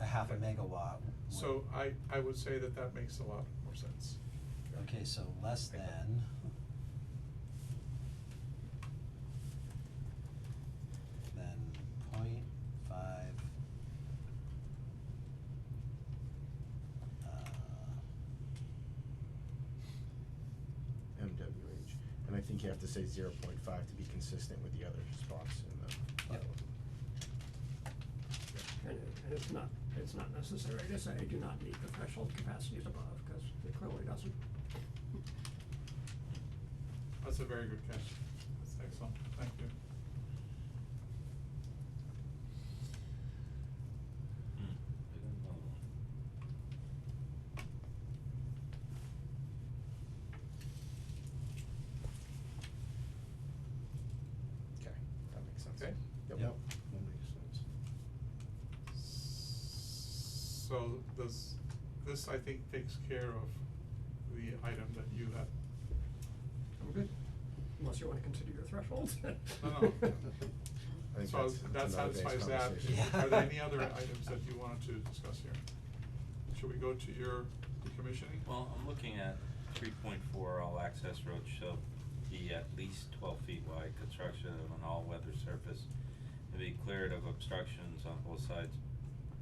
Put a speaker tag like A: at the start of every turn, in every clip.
A: half a megawatt. would-
B: So I, I would say that that makes a lot more sense.
A: Okay, so less than. Than point five. Uh,
C: MWH, and I think you have to say zero point five to be consistent with the other spots in the
A: Yep.
C: bylaw.
D: And it- and it's not, it's not necessary to say do not meet the threshold capacities above, because it clearly doesn't.
B: That's a very good catch. That's excellent. Thank you.
C: Okay, that makes sense.
B: Okay.
C: Yep.
A: Yep.
C: That makes sense.
B: So this, this I think takes care of the item that you had.
D: I'm good, unless you want to consider your thresholds.
B: No, no.
C: I think
B: So
C: that's,
B: that
C: that's another day's
B: satisfies that.
C: conversation.
A: Yeah.
B: Are there any other items that you wanted to discuss here? Should we go to your decommissioning?
E: Well, I'm looking at three point four, all access roads shall be at least twelve feet wide, construction of an all-weather surface and be cleared of obstructions on both sides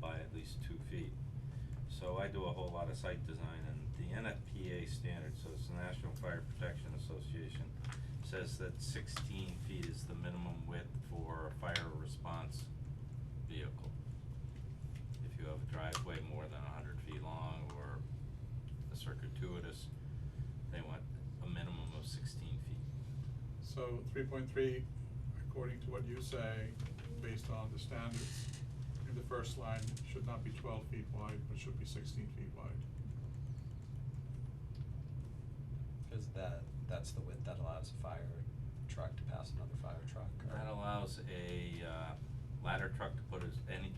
E: by at least two feet. So I do a whole lot of site design and the NFPA standard, so it's the National Fire Protection Association, says that sixteen feet is the minimum width for a fire response vehicle. If you have a driveway more than hundred feet long or a circuitous, they want a minimum of sixteen feet.
B: So three point three, according to what you say, based on the standards, in the first line, should not be twelve feet wide, but should be sixteen feet wide.
F: Cause that, that's the width that allows a fire truck to pass another fire truck or?
E: That allows a uh, ladder truck to put his, any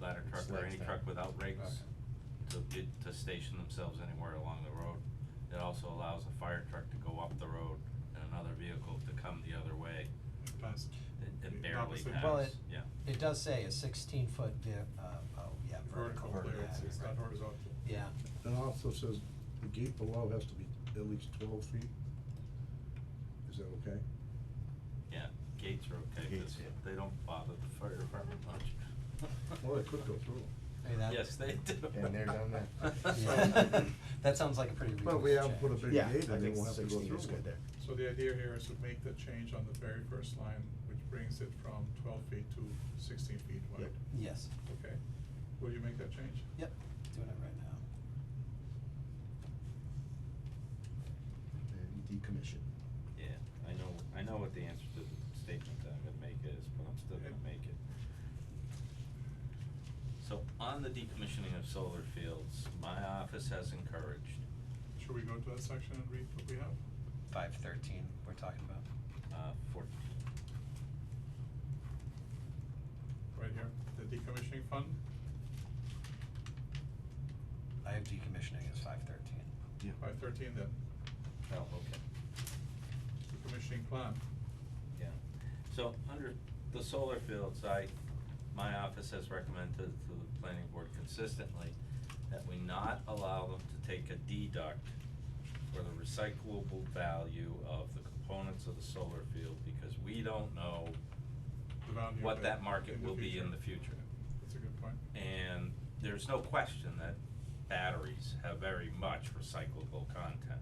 E: ladder truck
C: Sleds
E: or any
C: down.
E: truck without rakes to get, to station themselves anywhere along the road. It also allows a fire truck to go up the road and another vehicle to come the other way.
B: It pass-
E: It-
B: the
E: It barely
B: opposite-
A: Well,
E: passes,
A: it-
E: yeah.
A: It does say a sixteen foot vi- uh, oh, yeah, vertical,
B: Vertical clearance,
A: yeah,
B: it's not
A: right.
B: horizontal.
A: Yeah,
G: It also says the gate below has to be at least twelve feet. Is that okay?
E: Yeah, gates are okay,
C: Gates,
E: because
C: yeah.
E: they don't bother the fire department much.
G: Well, it could go through.
A: I mean, that.
E: Yes, they do.
C: Been there, done that.
A: Yeah. That sounds like a pretty reasonable
G: But we have put a
A: change.
G: big
C: Yeah,
G: gate
C: I
G: and they
C: think
G: won't have to go through.
C: 16 is
G: one.
C: good there.
B: So the idea here is to make the change on the very first line, which brings it from twelve feet to sixteen feet wide.
C: Yep.
A: Yes,
B: Okay, will you make that change?
A: yep, doing it right now.
C: And decommission.
E: Yeah, I know, I know what the answer to the statement that I'm gonna make is, but I'm still gonna make it. So on the decommissioning of solar fields, my office has encouraged,
B: Should we go to that section and read what we have?
F: Five thirteen, we're talking about.
E: uh, fourteen.
B: Right here, the decommissioning fund,
F: I have decommissioning as five thirteen.
C: Yeah.
B: by thirteen then,
E: Oh, okay.
B: decommissioning plan.
E: Yeah, so under the solar fields, I, my office has recommended to the planning board consistently that we not allow them to take a deduct for the recyclable value of the components of the solar field, because we don't know
B: the value
E: what
B: of it
E: that market will be in the future.
B: That's a good point.
E: And there's no question that batteries have very much recyclable content.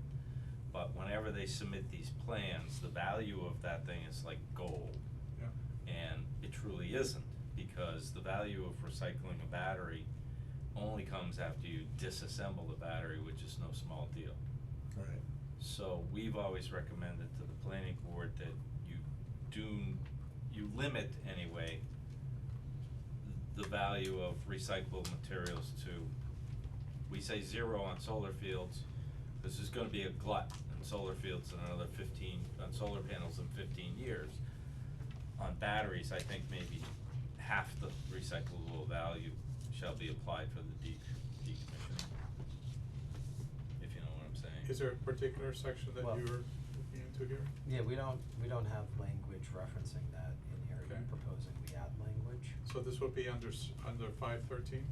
E: But whenever they submit these plans, the value of that thing is like gold.
B: Yeah,
E: And it truly isn't, because the value of recycling a battery only comes after you disassemble the battery, which is no small deal.
G: Right.
E: So we've always recommended to the planning board that you do, you limit anyway the value of recyclable materials to, we say zero on solar fields. This is gonna be a glut in solar fields in another fifteen, on solar panels in fifteen years. On batteries, I think maybe half the recyclable value shall be applied for the de- decommissioning. If you know what I'm saying.
B: is there a particular section that
A: Well-
B: you were looking into here?
A: Yeah, we don't, we don't have language referencing that in here, Are you
B: Okay.
A: proposing we add language.
B: So this will be under, s- under five thirteen?